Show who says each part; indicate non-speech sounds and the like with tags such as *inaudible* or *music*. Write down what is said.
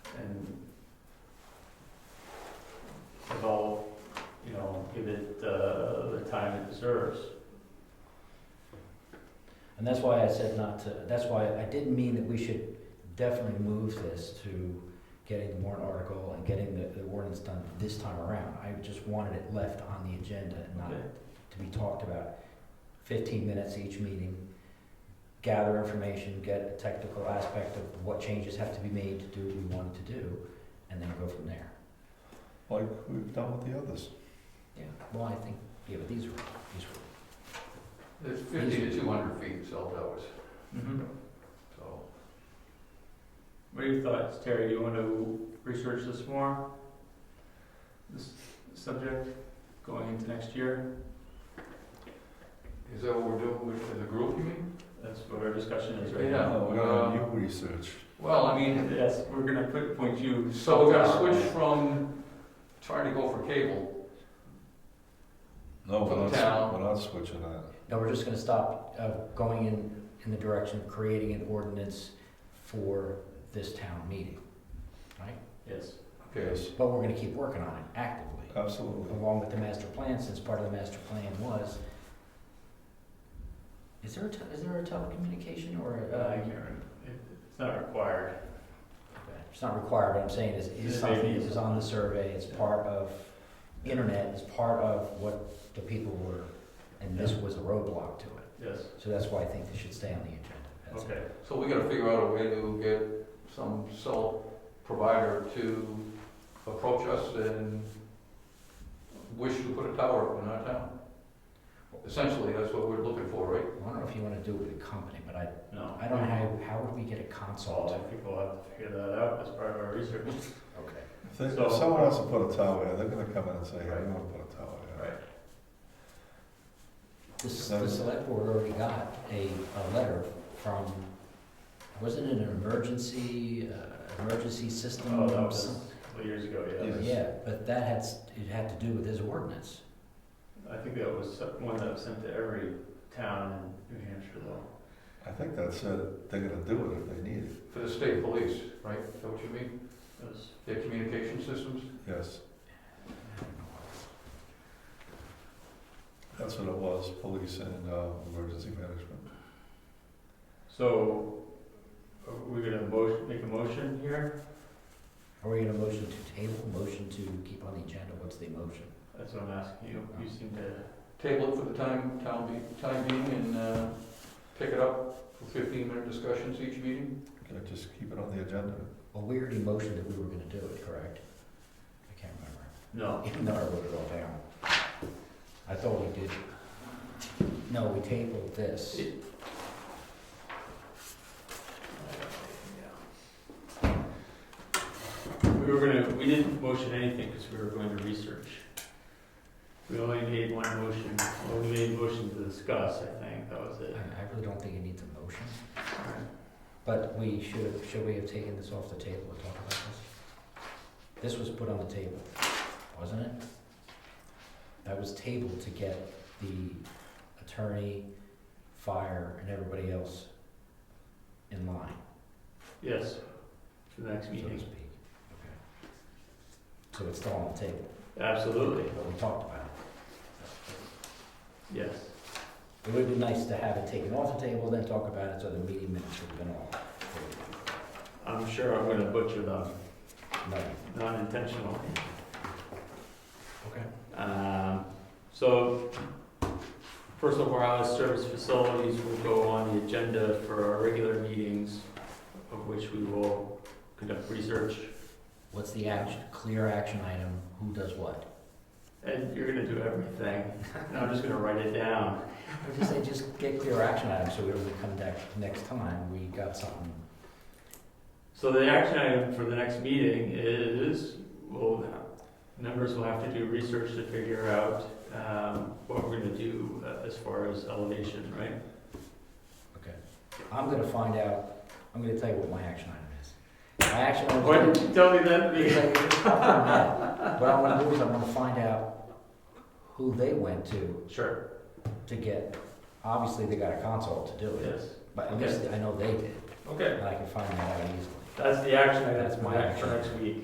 Speaker 1: uh,
Speaker 2: reserves. And that's why I said not to, that's why I didn't mean that we should definitely move this to getting the warrant article and getting the, the ordinance done this time around. I just wanted it left on the agenda and not
Speaker 1: Okay.
Speaker 2: to be talked about. Fifteen minutes each meeting, gather information, get a technical aspect of what changes have to be made to do what we wanted to do, and then go from there.
Speaker 1: like we've done with the others.
Speaker 2: Yeah, well, I think, yeah, but these are, these are.
Speaker 3: There's fifty to two hundred feet cell towers,
Speaker 1: Mm-hmm.
Speaker 3: so.
Speaker 1: What are your thoughts, Terry? Do you want to research this more? This subject going into next year?
Speaker 3: Is that what we're doing with, as a group, you mean?
Speaker 1: That's what our discussion is right
Speaker 3: Yeah. uh,
Speaker 1: now.
Speaker 3: No, no, you
Speaker 4: research.
Speaker 3: Well, I mean,
Speaker 1: Yes, we're gonna put, point you.
Speaker 3: so we're gonna switch from trying to go for cable.
Speaker 4: No,
Speaker 3: For
Speaker 4: we're
Speaker 3: the
Speaker 4: not,
Speaker 3: town.
Speaker 4: we're not switching that.
Speaker 2: No, we're just gonna stop, uh, going in, in the direction of creating an ordinance for this town meeting.
Speaker 1: Yes.
Speaker 3: Okay,
Speaker 4: Yes,
Speaker 2: But we're gonna keep working on it actively,
Speaker 4: absolutely.
Speaker 2: along with the master plan, since part of the master plan was. Is there a, te- is there a telecommunication or a,
Speaker 1: Uh,
Speaker 2: uh,
Speaker 1: I can't remember. It- It's not required.
Speaker 2: it's not required, but I'm saying is, is
Speaker 1: It may be.
Speaker 2: something that was on the survey, it's part of internet, it's part of what the people were, and this was a roadblock to it.
Speaker 1: Yes.
Speaker 2: So that's why I think they should stay on the agenda. That's it.
Speaker 1: Okay.
Speaker 3: so we gotta figure out a way to get some cell provider to approach us and wish to put a tower up in our town. Essentially, that's what we're looking for, right?
Speaker 2: I don't know if you want to do it with a company, but I,
Speaker 1: No.
Speaker 2: I don't know, how, how would we get a consult?
Speaker 1: Well, I think we'll have to figure that out as part of our research.
Speaker 2: Okay.
Speaker 4: If they-
Speaker 1: So-
Speaker 4: if someone wants to put a tower in, they're gonna come in and say, hey, we want to put a tower in.
Speaker 1: Right.
Speaker 2: The, s-
Speaker 4: No.
Speaker 2: the select board already got a, a letter from, wasn't it an emergency, uh, emergency system?
Speaker 1: Oh, that was
Speaker 2: Some-
Speaker 1: years ago, yeah.
Speaker 4: Yes.
Speaker 2: Yeah, but that had, s- it had to do with his ordinance.
Speaker 1: I think that was one that was sent to every town in New Hampshire though.
Speaker 4: I think that's it. They're gonna do it if they need it.
Speaker 3: For the state police, right? Is that what you mean?
Speaker 1: It was
Speaker 3: Their communication systems?
Speaker 4: Yes, that's what it was, police and, uh, emergency management.
Speaker 1: So, are we gonna motion, make a motion here?
Speaker 2: Are we gonna motion to table, motion to keep on the agenda? What's the motion?
Speaker 1: That's what I'm asking you, you seem to,
Speaker 3: table it for the time, town be, time being and, uh, pick it up for fifteen minute discussions each meeting?
Speaker 4: Okay, just keep it on the agenda.
Speaker 2: Well, we already motioned that we were gonna do it, correct? I can't remember.
Speaker 1: no,
Speaker 2: Even though I wrote it all down. I thought we did. No, we tabled this.
Speaker 1: we were gonna, we didn't motion anything because we were going to research. We only made one motion, well, we made a motion to discuss, I think, that was
Speaker 2: I
Speaker 1: it.
Speaker 2: I really don't think it needs a motion, but we should, should we have taken this off the table to talk about this? This was put on the table, wasn't it? That was tabled to get the attorney, fire, and everybody else in line,
Speaker 1: Yes, for the next
Speaker 2: so to
Speaker 1: meeting,
Speaker 2: speak. Okay. So it's still on the table,
Speaker 1: absolutely,
Speaker 2: but we talked about it.
Speaker 1: yes.
Speaker 2: It would have been nice to have it taken off the table, then talk about it, so the meeting minutes would have been all.
Speaker 1: I'm sure I'm gonna butcher them,
Speaker 2: No.
Speaker 1: not intentionally.
Speaker 2: Okay.
Speaker 1: Um, So, personal wireless service facilities will go on the agenda for our regular meetings, of which we will conduct research.
Speaker 2: What's the action, clear action item, who does what?
Speaker 1: And you're gonna do everything, *laughs* and I'm just gonna write it down.
Speaker 2: I just say, just get clear action items, so when we come back next time, we got something.
Speaker 1: So the action item for the next meeting is, well, members will have to do research to figure out um, what we're gonna do uh, as far as elevation, right?
Speaker 2: I'm gonna find out, I'm gonna tell you what my action item is. My action item. is-
Speaker 1: Why didn't you tell me that? at the beginning?
Speaker 2: What I wanna do is I wanna find out who they went to,
Speaker 1: Sure,
Speaker 2: to get, obviously, they got a consult to do it,
Speaker 1: yes,
Speaker 2: but at least I know they did,
Speaker 1: okay.
Speaker 2: and I can find that out easily.
Speaker 1: That's the action item.
Speaker 2: That's my
Speaker 1: For next week.